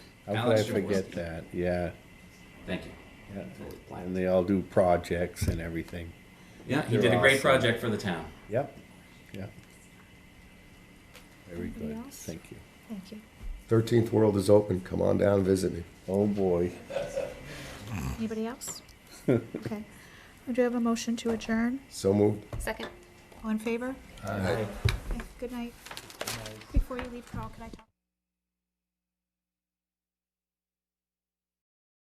How could I Alex Jaworski. forget that? Yeah. Thank you. yeah. Totally blind. And they all do projects and everything. Yeah, he They're did a great awesome. project for the town. Yep, yep. Very Anybody good, else? thank you. Thank you. Thirteenth World is open. Come on down, and visit me. Oh, boy. Anybody else? Okay. Do you have a motion to adjourn? So moved. Second. All in favor? Aye. Good night. Before you leave, Carl, can I talk?